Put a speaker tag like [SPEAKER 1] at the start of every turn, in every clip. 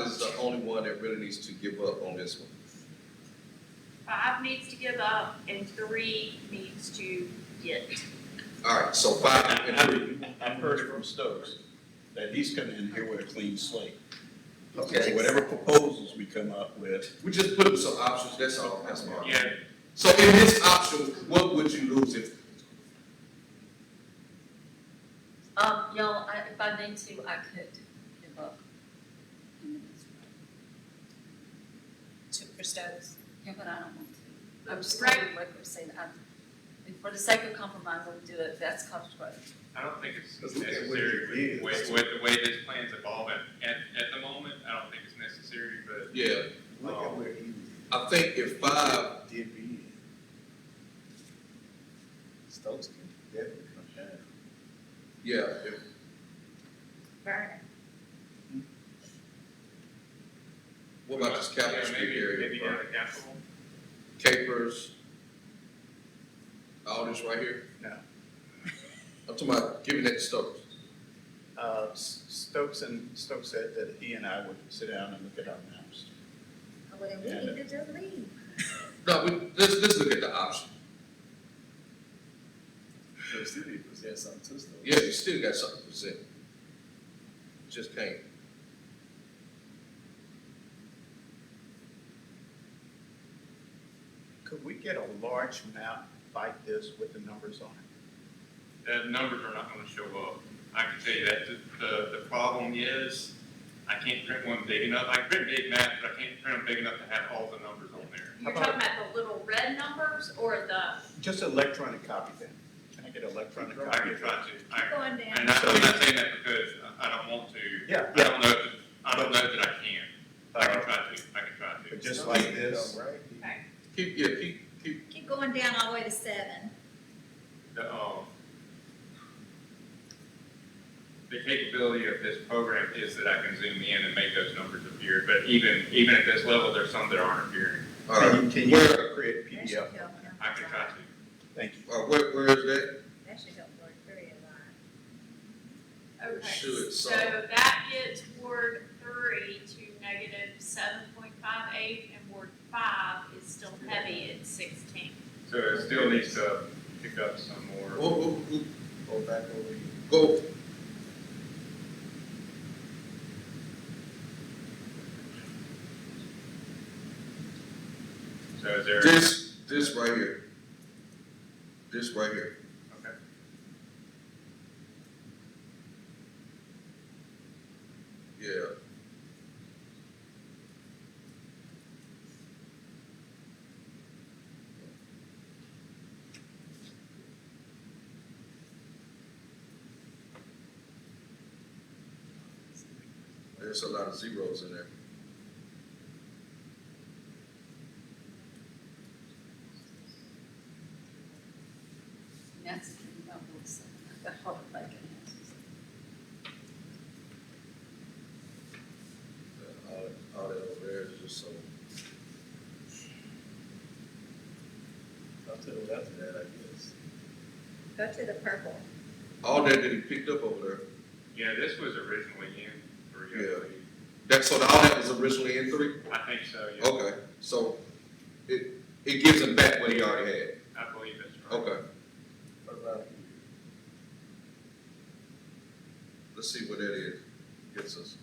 [SPEAKER 1] is the only one that really needs to give up on this one.
[SPEAKER 2] Five needs to give up and three needs to get.
[SPEAKER 1] All right, so five and three.
[SPEAKER 3] I heard from Stokes that he's coming in here with a clean slate. So
[SPEAKER 1] Okay,
[SPEAKER 3] whatever proposals we come up with,
[SPEAKER 1] we just put up some options, that's all, that's all.
[SPEAKER 4] Yeah,
[SPEAKER 1] So in this option, what would you lose if,
[SPEAKER 5] Um, y'all, I, if I need to, I could give up.
[SPEAKER 6] to Christos.
[SPEAKER 5] Yeah, but I don't want to. I'm just going to record saying, I'm, and for the sake of compromise, I'll do it, that's constructive.
[SPEAKER 4] I don't think it's
[SPEAKER 7] Let's look at what it
[SPEAKER 4] necessary
[SPEAKER 7] is.
[SPEAKER 4] with, with, with the way this plan's evolving. At, at the moment, I don't think it's necessary, but
[SPEAKER 1] yeah,
[SPEAKER 7] Look
[SPEAKER 3] um,
[SPEAKER 7] at where he
[SPEAKER 1] I think if five,
[SPEAKER 7] did be in. Stokes can definitely come down.
[SPEAKER 1] yeah, if,
[SPEAKER 2] Vernon.
[SPEAKER 1] what about this
[SPEAKER 4] Yeah,
[SPEAKER 1] Capitol Street
[SPEAKER 4] maybe- Maybe
[SPEAKER 1] area?
[SPEAKER 4] down at Capitol.
[SPEAKER 1] Capers, all this right here?
[SPEAKER 3] No.
[SPEAKER 1] I'm talking about giving that to Stokes.
[SPEAKER 3] uh, S- Stokes and, Stokes said that he and I would sit down and look at our maps.
[SPEAKER 6] Well, then we need to just leave.
[SPEAKER 1] No, we, let's, let's look at the option.
[SPEAKER 7] So City presents something to Stokes.
[SPEAKER 1] Yeah, you still got something to present. Just can't.
[SPEAKER 3] Could we get a large map like this with the numbers on it?
[SPEAKER 4] The numbers are not gonna show up. I can tell you that. The, the, the problem is, I can't print one big enough. I can print big maps, but I can't print them big enough to have all the numbers on there.
[SPEAKER 2] You're
[SPEAKER 3] How
[SPEAKER 2] talking
[SPEAKER 3] about-
[SPEAKER 2] about the little red numbers or the,
[SPEAKER 3] Just electronic copy then. Can I get electronic
[SPEAKER 4] I
[SPEAKER 3] copy?
[SPEAKER 4] can
[SPEAKER 3] of
[SPEAKER 4] try
[SPEAKER 3] that?
[SPEAKER 4] to, I,
[SPEAKER 6] Going down.
[SPEAKER 4] and I'm not saying that because I I don't want to.
[SPEAKER 3] Yeah,
[SPEAKER 4] I
[SPEAKER 3] yeah.
[SPEAKER 4] don't know, if- I don't know that I can. I can
[SPEAKER 3] Uh,
[SPEAKER 4] try to, I can try to.
[SPEAKER 3] But just like this,
[SPEAKER 7] Right?
[SPEAKER 1] Keep, yeah, keep, keep,
[SPEAKER 6] Keep going down all the way to seven.
[SPEAKER 4] the, um, the capability of this program is that I can zoom in and make those numbers appear, but even, even at this level, there's some that aren't appearing.
[SPEAKER 1] all right.
[SPEAKER 3] can you, can you create
[SPEAKER 6] That should
[SPEAKER 3] PDF?
[SPEAKER 6] help. him.
[SPEAKER 4] I can try to,
[SPEAKER 3] Thank you.
[SPEAKER 1] All right, Uh, where, where is that?
[SPEAKER 6] That should help Lord Curry a lot.
[SPEAKER 2] okay,
[SPEAKER 1] Should,
[SPEAKER 2] so
[SPEAKER 1] so-
[SPEAKER 2] that gets Ward three to negative seven point five eight and Ward five is still heavy at sixteen.
[SPEAKER 4] so it still needs to pick up some
[SPEAKER 1] Whoa,
[SPEAKER 4] more.
[SPEAKER 1] whoa, whoa,
[SPEAKER 7] Go back over here.
[SPEAKER 1] Go,
[SPEAKER 4] So is there, okay,
[SPEAKER 1] This, this right here. This right here. Yeah. There's a lot of zeros in there.
[SPEAKER 5] And that's the thing about books, the hard like it.
[SPEAKER 1] All, all that over there is just so.
[SPEAKER 7] Up to the left of that, I guess.
[SPEAKER 6] Go to the purple.
[SPEAKER 1] All that that he picked up over there.
[SPEAKER 4] yeah, this was originally in three, I
[SPEAKER 1] Yeah.
[SPEAKER 4] believe.
[SPEAKER 1] That, so all that was originally in three?
[SPEAKER 4] I think so, yeah,
[SPEAKER 1] Okay, so it, it gives him back what he already had.
[SPEAKER 4] I believe that's right.
[SPEAKER 1] Okay,
[SPEAKER 7] What about here?
[SPEAKER 1] let's see what that is, gets us.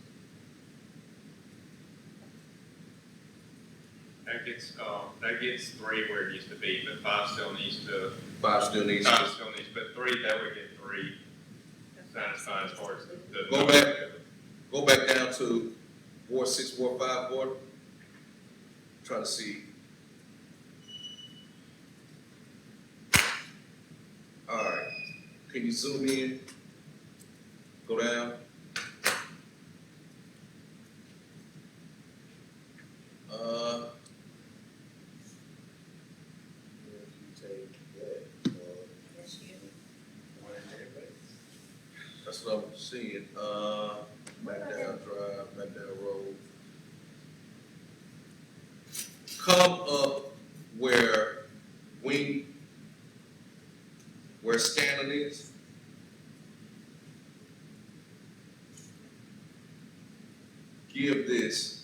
[SPEAKER 4] That gets, uh, that gets three where it needs to be, but five still needs to,
[SPEAKER 1] Five still needs
[SPEAKER 4] five
[SPEAKER 1] to,
[SPEAKER 4] still needs, but three, that would get three satisfied as far as the. the-
[SPEAKER 1] Go back. go back down to Ward six, Ward five, Ward. Try to see. Alright, can you zoom in? Go down. Uh,
[SPEAKER 7] If you take that, or
[SPEAKER 6] Yes, you.
[SPEAKER 7] one in that place.
[SPEAKER 1] that's what I'm seeing, uh, McDowell Drive, McDowell Road. Come up where Wing, where Scanlon is. Give this it's